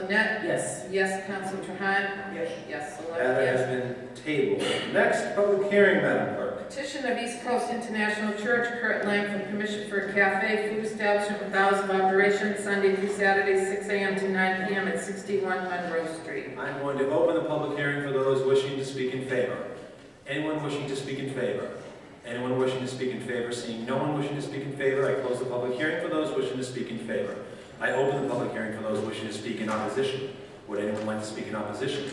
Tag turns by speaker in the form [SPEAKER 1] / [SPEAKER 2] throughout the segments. [SPEAKER 1] Barnett, yes. Yes, Counsel Trahan,
[SPEAKER 2] Yes.
[SPEAKER 1] yes, eleven
[SPEAKER 3] That
[SPEAKER 1] yes.
[SPEAKER 3] has been tabled. Next, public hearing, Madam Clerk.
[SPEAKER 1] Petition of East Coast International Church, Kurt Lang, for permission for a cafe, food establishment with hours of operation Sunday through Saturday, 6 a.m. to 9 p.m. at 61 Monroe Street.
[SPEAKER 3] I'm going to open the public hearing for those wishing to speak in favor. Anyone wishing to speak in favor? Anyone wishing to speak in favor? Seeing no one wishing to speak in favor, I close the public hearing for those wishing to speak in favor. I open the public hearing for those wishing to speak in opposition. Would anyone like to speak in opposition?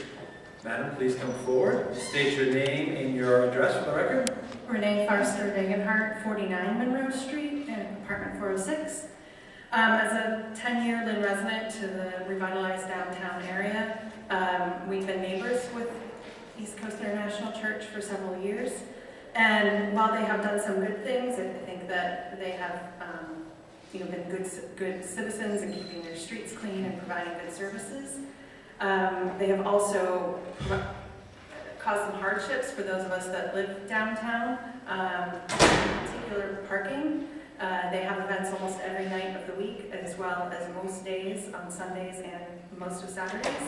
[SPEAKER 3] Madam, please come forward, state your name and your address for the record.
[SPEAKER 4] Renee Farster Degenhardt, 49 Monroe Street, in apartment 406. Um, As a 10-year Lynn resident to the revitalized downtown area, um, we've been neighbors with East Coast International Church for several years. And while they have done some good things, I think that they have, um, you know, been good ci- good citizens and keeping their streets clean and providing good services. Um, They have also pro- cause some hardships for those of us that live downtown, um, in particular parking. Uh, They have events almost every night of the week, as well as most days on Sundays and most of Saturdays.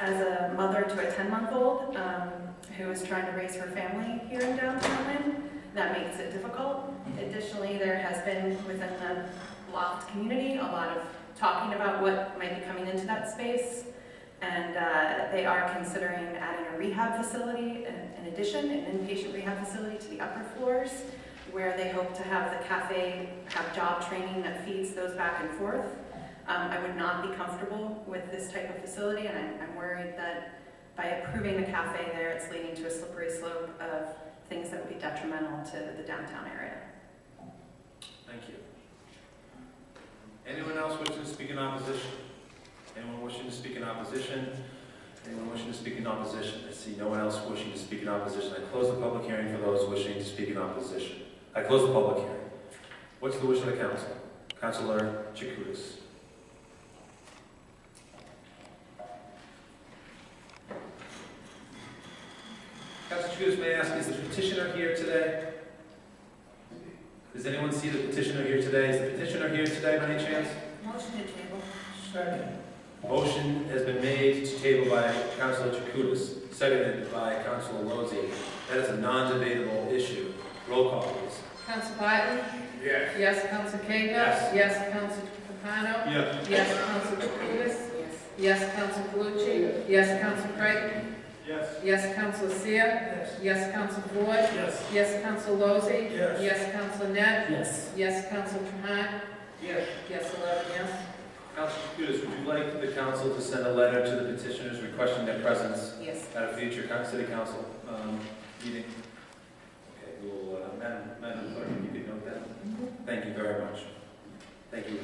[SPEAKER 4] As a mother to a 10-month-old um, who is trying to raise her family here in downtown Lynn, that makes it difficult. Additionally, there has been within the loft community, a lot of talking about what might be coming into that space. And uh, they are considering adding a rehab facility in- in addition, an inpatient rehab facility to the upper floors, where they hope to have the cafe have job training that feeds those back and forth. Um, I would not be comfortable with this type of facility, and I'm- I'm worried that by approving the cafe there, it's leading to a slippery slope of things that would be detrimental to the downtown area.
[SPEAKER 3] Thank you. Anyone else wishing to speak in opposition? Anyone wishing to speak in opposition? Anyone wishing to speak in opposition? I see no one else wishing to speak in opposition. I close the public hearing for those wishing to speak in opposition. I close the public hearing. What's the wish of the council? Councilor Chakoudas. Councilor Chakoudas, may I ask, is the petitioner here today? Does anyone see the petitioner here today? Is the petitioner here today by any chance?
[SPEAKER 4] Motion to table.
[SPEAKER 3] Second. Motion has been made to table by Councilor Chakoudas, seconded by Councilor Lozey. That is a non-debatable issue. Roll call, please.
[SPEAKER 1] Counsel Biden?
[SPEAKER 2] Yes.
[SPEAKER 1] Yes, Counsel Cahill?
[SPEAKER 3] Yes.
[SPEAKER 1] Yes, Counsel Capano?
[SPEAKER 3] Yes.
[SPEAKER 1] Yes, Counsel Jacutis? Yes, Counsel Calucci? Yes, Counsel Creighton?
[SPEAKER 3] Yes.
[SPEAKER 1] Yes, Counsel Seer?
[SPEAKER 2] Yes.
[SPEAKER 1] Yes, Counsel Ford?
[SPEAKER 2] Yes.
[SPEAKER 1] Yes, Counsel Lozey?
[SPEAKER 3] Yes.
[SPEAKER 1] Yes, Counsel Net?
[SPEAKER 2] Yes.
[SPEAKER 1] Yes, Counsel Trahan?
[SPEAKER 2] Yes.
[SPEAKER 1] Yes, eleven yes.
[SPEAKER 3] Councilor Chakoudas, would you like the council to send a letter to the petitioners requesting their presence
[SPEAKER 1] Yes.
[SPEAKER 3] at a future coun- city council um, meeting? Okay, we will, uh, Madam Madam Clerk, if you could note that. Thank you very much. Thank you,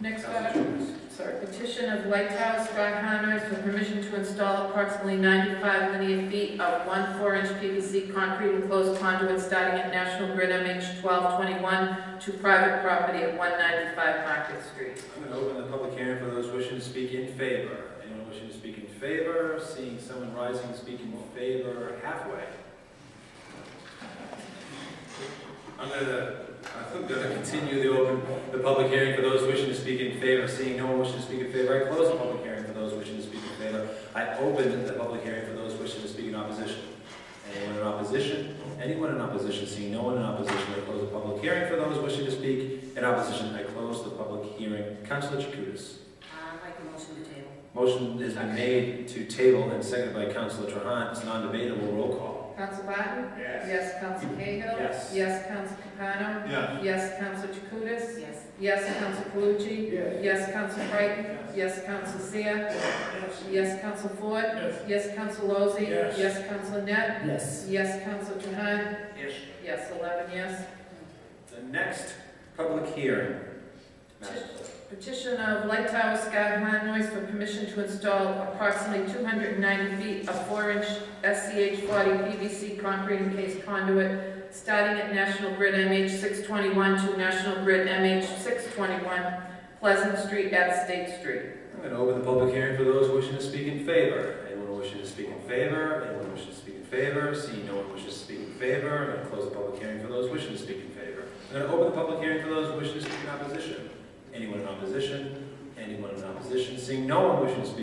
[SPEAKER 1] Next
[SPEAKER 3] Councilor
[SPEAKER 1] item.
[SPEAKER 3] Chakoudas.
[SPEAKER 1] Sorry, petition of Lighthouse Rock Hunters for permission to install approximately 95 linear feet of one four-inch PVC concrete enclosed conduit starting at National Grid MH 1221 to private property at 195 Market Street.
[SPEAKER 3] I'm going to open the public hearing for those wishing to speak in favor. Anyone wishing to speak in favor, seeing someone rising, speaking in favor halfway. I'm going to, I'm going to continue the open, the public hearing for those wishing to speak in favor, seeing no one wishing to speak in favor. I close the public hearing for those wishing to speak in favor. I open the public hearing for those wishing to speak in opposition. Anyone in opposition? Anyone in opposition? Seeing no one in opposition, I close the public hearing for those wishing to speak in opposition, I close the public hearing. Councilor Chakoudas.
[SPEAKER 1] I'd like a motion to table.
[SPEAKER 3] Motion has been made to table and seconded by Councilor Trahan. It's non-debatable. Roll call.
[SPEAKER 1] Counsel Barton?
[SPEAKER 2] Yes.
[SPEAKER 1] Yes, Counsel Cahill?
[SPEAKER 3] Yes.
[SPEAKER 1] Yes, Counsel Capano?
[SPEAKER 3] Yes.
[SPEAKER 1] Yes, Counsel Jacutis?
[SPEAKER 4] Yes.
[SPEAKER 1] Yes, Counsel Calucci?
[SPEAKER 2] Yes.
[SPEAKER 1] Yes, Counsel Creighton?
[SPEAKER 2] Yes.
[SPEAKER 1] Yes, Counsel Seer?
[SPEAKER 2] Yes.
[SPEAKER 1] Yes, Counsel Ford?
[SPEAKER 2] Yes.
[SPEAKER 1] Yes, Counsel Lozey?
[SPEAKER 2] Yes.
[SPEAKER 1] Yes, Counsel Net?
[SPEAKER 2] Yes.
[SPEAKER 1] Yes, Counsel Trahan?
[SPEAKER 2] Yes.
[SPEAKER 1] Yes, 11 yes.
[SPEAKER 3] The next public hearing. Madam Clerk.
[SPEAKER 1] Petition of Light Tower Sky High Noise for permission to install approximately 290 feet of 4-inch SCH 40 PVC concrete encased conduit starting at National Grid MH 621 to National Grid MH 621 Pleasant Street at State Street.
[SPEAKER 3] I'm going to open the public hearing for those wishing to speak in favor. Anyone wishing to speak in favor? Anyone wishing to speak in favor? Seeing no one wishes to speak in favor, I'm going to close the public hearing for those wishing to speak in favor. I'm going to open the public hearing for those wishing to speak in opposition. Anyone in opposition? Anyone in opposition? Seeing no one wishing to speak